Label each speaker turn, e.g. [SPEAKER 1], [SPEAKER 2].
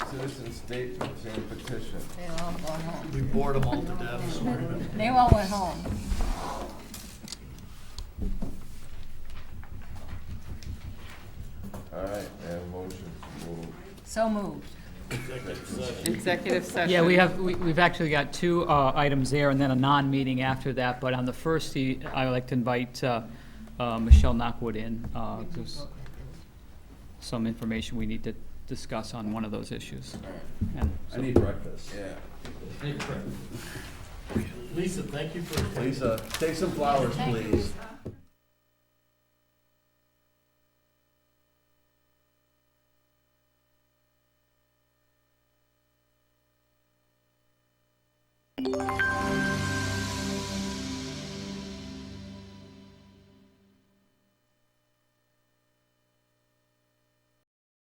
[SPEAKER 1] citizen statements and petition.
[SPEAKER 2] They all go home.
[SPEAKER 3] We bored them all to death, so we're gonna.
[SPEAKER 2] They all went home.
[SPEAKER 1] All right, and motion to move.
[SPEAKER 2] So moved.
[SPEAKER 4] Executive session.
[SPEAKER 5] Yeah, we have, we- we've actually got two uh, items there and then a non-meeting after that, but on the first, the- I would like to invite uh, uh, Michelle Knockwood in. uh, 'cause Some information we need to discuss on one of those issues. And
[SPEAKER 1] I need breakfast. Yeah.
[SPEAKER 3] Lisa, thank you for.
[SPEAKER 1] Lisa, take some flowers, please.